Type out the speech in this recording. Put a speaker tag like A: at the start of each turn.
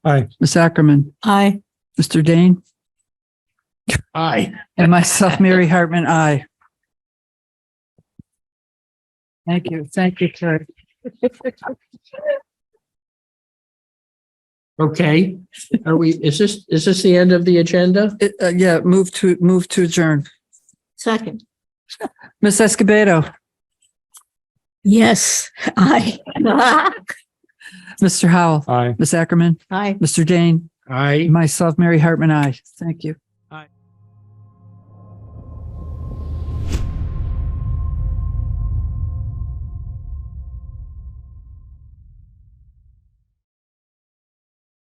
A: Aye.
B: Ms. Ackerman,
C: Aye.
B: Mr. Dane,
D: Aye.
B: and myself, Mary Hartman, aye. Thank you. Thank you, Uh, Terry.
D: Okay, are we, is this, is this the end of the agenda?
B: It- uh, Yeah, move to, move to adjourn.
C: Second.
B: Ms. Escobedo,
C: Yes, aye.
B: Mr. Howell,
A: Aye.
B: Ms. Ackerman,
C: Aye.
B: Mr. Dane,
D: Aye.
B: myself, Mary Hartman, aye. Thank you.